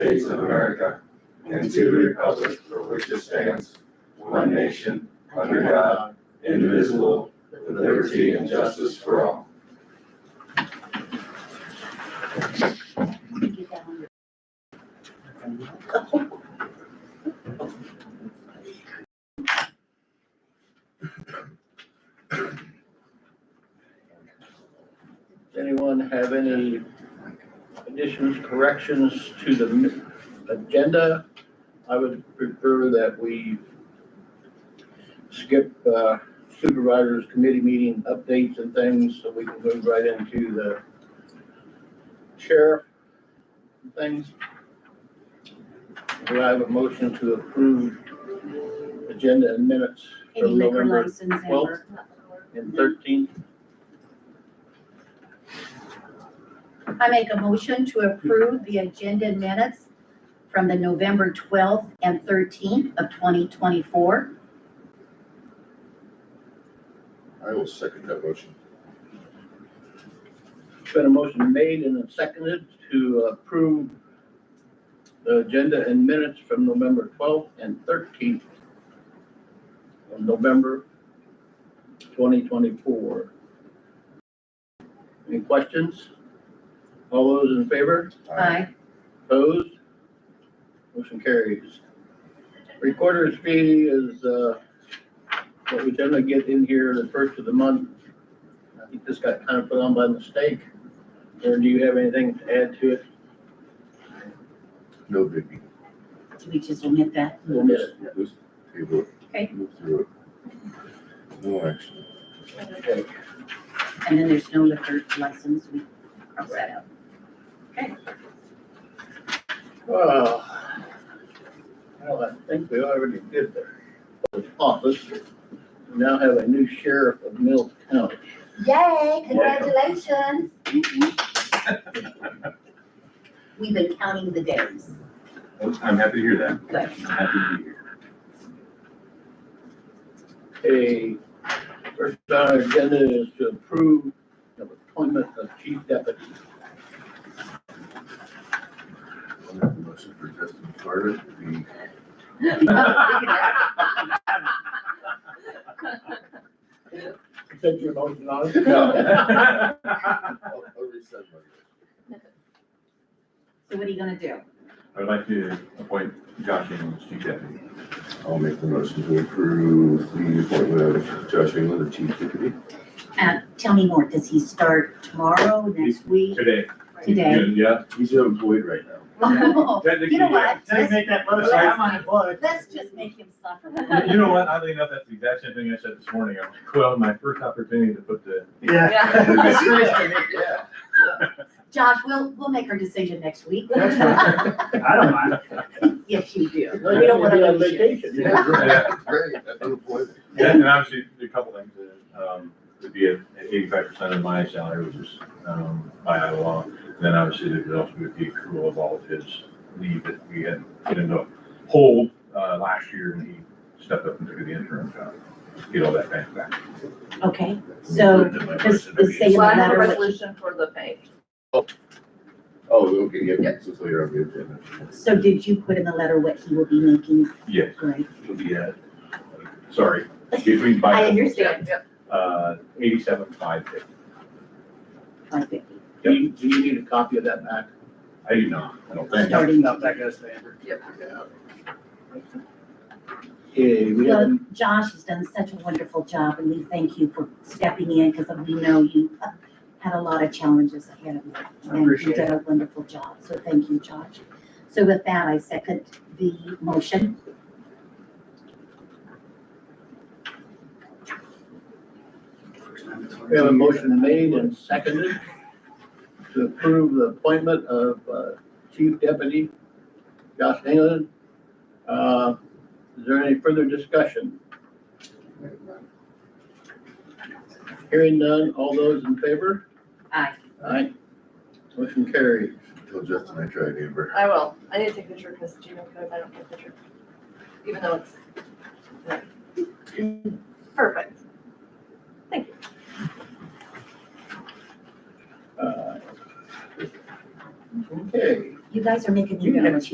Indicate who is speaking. Speaker 1: States of America and to the republic for which it stands, one nation, under God, indivisible, with liberty and justice for all.
Speaker 2: Does anyone have any additions, corrections to the mi- agenda? I would prefer that we skip uh, supervisors committee meeting updates and things so we can move right into the sheriff and things. Do I have a motion to approve agenda and minutes for
Speaker 3: Any liquor
Speaker 2: November
Speaker 3: license
Speaker 2: Well-
Speaker 3: ever.
Speaker 2: and thirteenth?
Speaker 3: I make a motion to approve the agenda minutes from the November twelfth and thirteenth of twenty twenty-four.
Speaker 4: I will second that motion.
Speaker 2: Been a motion made and seconded to approve the agenda and minutes from November twelfth and thirteenth of November twenty twenty-four. Any questions? All those in favor?
Speaker 3: Aye.
Speaker 2: Opposed? Motion carries. Recorder's fee is, uh, what we generally get in here the first of the month. I think this got kind of put on by mistake. Or do you have anything to add to it?
Speaker 4: No biggie.
Speaker 3: Do we just omit that?
Speaker 2: We'll miss it.
Speaker 4: Just table it.
Speaker 3: Okay.
Speaker 4: Move through it. No action.
Speaker 2: Okay.
Speaker 3: And then there's no liquor license, we cross that out.
Speaker 2: Well, well, I think we already did the office. We Now have a new sheriff of Mill County.
Speaker 3: Yay, congratulations. We've been counting the days,
Speaker 1: I'm happy to hear that.
Speaker 3: but
Speaker 1: Happy to be here.
Speaker 2: A first on our agenda is to approve the appointment of chief deputy.
Speaker 4: I'll make a motion for Justin Carter to be
Speaker 2: Take your motion on
Speaker 1: I
Speaker 4: I'll, I'll resend my.
Speaker 3: so what are you gonna do?
Speaker 1: would like to appoint Josh England as chief deputy.
Speaker 4: I'll make the motion to approve the appointment of Josh England, the chief deputy.
Speaker 3: Uh, tell me more, does he start tomorrow, next week,
Speaker 1: Today.
Speaker 3: today?
Speaker 1: Yeah.
Speaker 4: He's unemployed right now.
Speaker 3: Oh,
Speaker 1: Technically,
Speaker 3: You know
Speaker 1: yeah.
Speaker 3: what? Let's,
Speaker 5: that
Speaker 1: motion, I'm
Speaker 5: unemployed.
Speaker 3: let's just make him
Speaker 1: You-
Speaker 3: suffer.
Speaker 1: You know what? Oddly enough, that's the exact same thing I said this morning. I'm like, well, my first opportunity to put the.
Speaker 5: Yeah.
Speaker 2: Yeah.
Speaker 3: Josh, we'll, we'll make our decision next week.
Speaker 5: That's right. I don't mind.
Speaker 3: Yes, you do.
Speaker 2: No,
Speaker 3: We don't
Speaker 2: you're gonna
Speaker 3: wanna
Speaker 2: be on
Speaker 3: lose you.
Speaker 2: vacation.
Speaker 4: Yeah,
Speaker 1: Yeah.
Speaker 4: Great, that's unemployment.
Speaker 1: Yeah, and obviously, a couple things, uh, um, would be at eighty-five percent of my salary, which is, um, by Iowa law. Then obviously, there would also be accrual of all of his leave that we had put into a hold, uh, last year, and he stepped up and took the interim job. Get all that back back.
Speaker 3: Okay, so just the same
Speaker 6: Well, I have a
Speaker 3: matter, what-
Speaker 6: resolution for the pay.
Speaker 4: Oh, okay, yeah, it's just later on the agenda.
Speaker 3: so did you put in the letter what he will be making,
Speaker 1: Yes,
Speaker 3: right?
Speaker 1: it'll be at, sorry, between
Speaker 3: I
Speaker 1: by,
Speaker 3: understand,
Speaker 6: Yep.
Speaker 1: uh, eighty-seven, five fifty.
Speaker 3: five fifty,
Speaker 2: Do you, do you need a copy of that back?
Speaker 1: I do not, I don't think.
Speaker 3: starting.
Speaker 5: Not that guy's favorite.
Speaker 2: Yeah, we
Speaker 3: Well,
Speaker 2: have,
Speaker 3: Josh has done such a wonderful job and we thank you for stepping in because we know you had a lot of challenges ahead of you. And you
Speaker 5: appreciate
Speaker 3: did a wonderful job, so thank you, Josh. So with that, I second the motion.
Speaker 2: we have a motion made and seconded to approve the appointment of uh, Chief Deputy Josh England. Uh, Is there any further discussion? Hearing none, all those in favor?
Speaker 3: Aye.
Speaker 2: Aye. Motion carries.
Speaker 4: Tell Justin I tried Amber.
Speaker 6: I will. I need to take a picture because Gmail code, I don't get a picture. Even though it's. Perfect.
Speaker 2: Uh, Okay. Uh,
Speaker 3: You guys are making me
Speaker 2: You
Speaker 3: nervous.